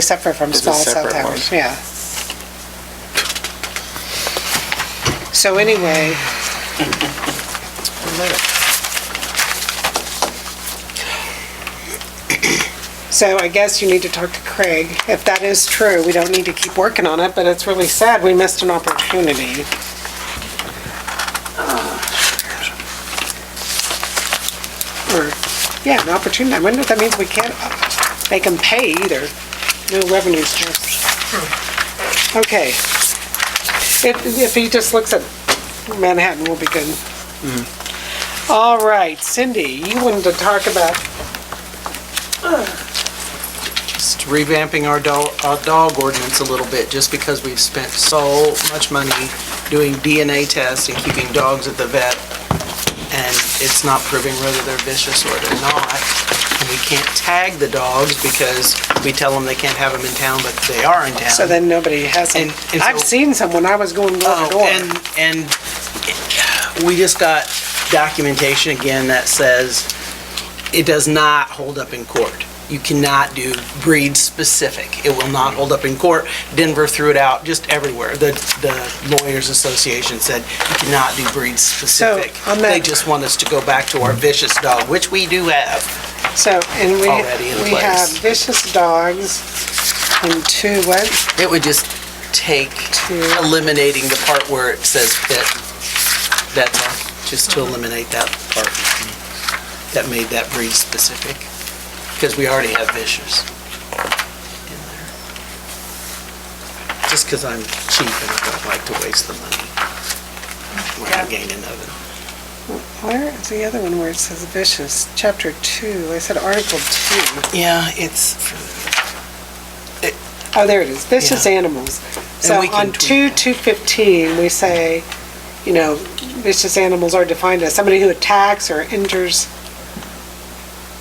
Separate from It's a small cell separate one. towers, yeah. So anyway, so I guess you need to talk to Craig. If that is true, we don't need to keep working on it, but it's really sad we missed an opportunity. Or, yeah, an opportunity. I wonder if that means we can't make them pay either. No revenue source. Okay. If, if he just looks at Manhattan, we'll be good. All right, Cindy, you wanted to talk about, just revamping our dog, our dog ordinance a little bit, just because we've spent so much money doing DNA tests and keeping dogs at the vet, and it's not proving whether they're vicious or they're not. And we can't tag the dogs because we tell them they can't have them in town, but they are in town. so then nobody has them. And- and I've so- seen some when I was going door to Oh, door. and, and we just got documentation again that says it does not hold up in court. You cannot do breed specific. It will not hold up in court. Denver threw it out just everywhere. The, the lawyers association said you cannot do breed specific. on that- They just want us to go back to our vicious dog, which we do have. So, and Already in we, we place. have vicious dogs and two, what? It would just take eliminating the part where it says that, that's all, just to eliminate that part that made that breed specific, because we already have vicious in there. Just because I'm cheap and I don't like to waste the money when I gain another. Where is the other one where it says vicious? Chapter two, I said article two. Yeah, it's, Oh, there it is, vicious Yeah. animals. So we can on tweak two, that. two fifteen, we say, you know, vicious animals are defined as somebody who attacks or injures,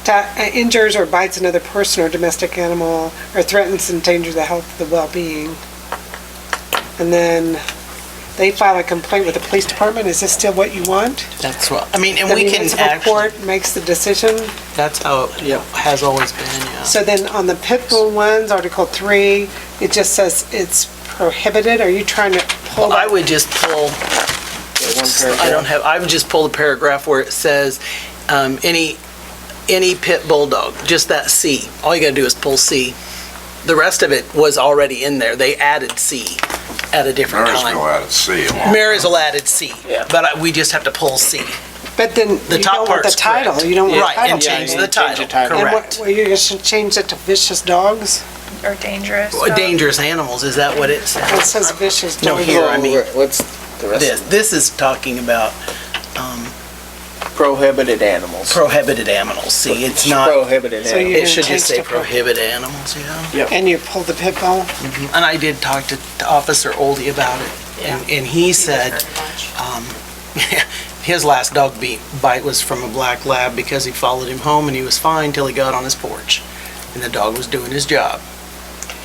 ta- uh, injures or bites another person or domestic animal, or threatens to endanger the health, the well-being. And then they file a complaint with the police department, is this still what you want? that's what, I mean, and The we can municipal actually, court makes the decision? that's how it yeah, has always been, yeah. So then on the pit bull ones, Article 3, it just says it's prohibited. Are you trying to pull Well, I that? would just pull I don't have, I would just pull the paragraph where it says, um, any, any pit bulldog, just that C. All you gotta do is pull C. The rest of it was already in there. They added C at a different Marysville time. out at sea along. Marysville added C, but I- we just have to pull C. But then The you top don't want the part's correct. title. You don't want the Right, title and change the change. title, And what- correct. Well, you should change it to vicious dogs? or dangerous. Well, Dangerous animals, is that what it It says? says vicious No, dogs. here, I mean, What's the this, rest? this is talking about um, Prohibited animals. prohibited animals. See, it's not, Prohibited So you- animals. it should just say You're gonna change prohibited animals, you know? And you pull the pit bull? And I did talk to to Officer Oldie about it, and, and he said, um, his last dog beat, bite was from a black lab because he followed him home and he was fine till he got on his porch, and the dog was doing his job.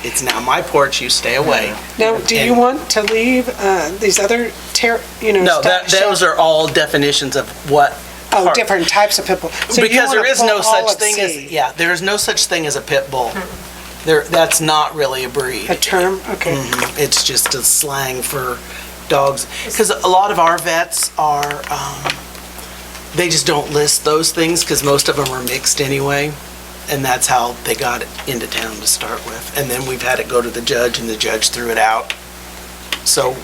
It's now my porch, you stay away. Now, do you And- want to leave uh, these other, ter- you know? No, sta- that, those are all definitions of what. Oh, part- different types of pit bull. So you Because there wanna is pull no all such of thing C, Hmm. as, yeah, there is no such thing as a pit bull. There, that's not really a breed. A term, okay. Mhm. It's just a slang for dogs, because a lot of our vets are, um, they just don't list those things, because most of them are mixed anyway, and that's how they got it into town to start with. And then we've had it go to the judge, and the judge threw it out. So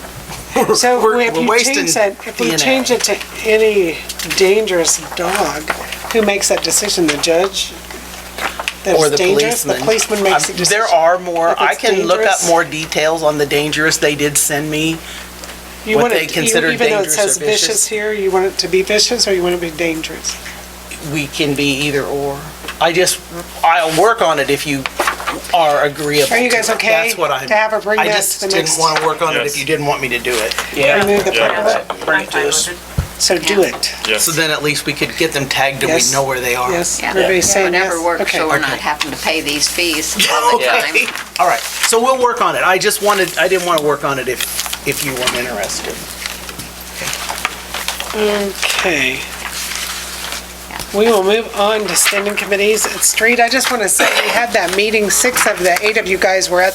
we're So we're if we're you wasting change that, if we DNA. change it to any dangerous dog, who makes that decision? The judge? That Or it's the dangerous? policeman. The policeman makes the Um, decision. There are more, If I it's can look up dangerous. more details on the dangerous they did send me. You what want it- they you- consider dangerous or Even though it says vicious. vicious here, you want it to be vicious or you want it to be dangerous? we can be either or. I just, I'll work on it if you are agreeable. Are you guys to it. okay That's what I. to have her bring that to the I just next- didn't want to work on it if Yes. you didn't want me to do it. Remove the Yeah. purple, Bring it to us. so do it. Yes. So then at least we could get them tagged and we Yes. know where they are. Yes, Yeah. everybody's It saying yes. never works, Okay. so we're not having to pay these fees all the time. Okay, all right. So we'll work on it. I just wanted, I didn't want to work on it if, if you weren't interested. Okay. Yeah. We will move on to standing committees. Street, I just want to say, we had that meeting, six of the eight of you guys were at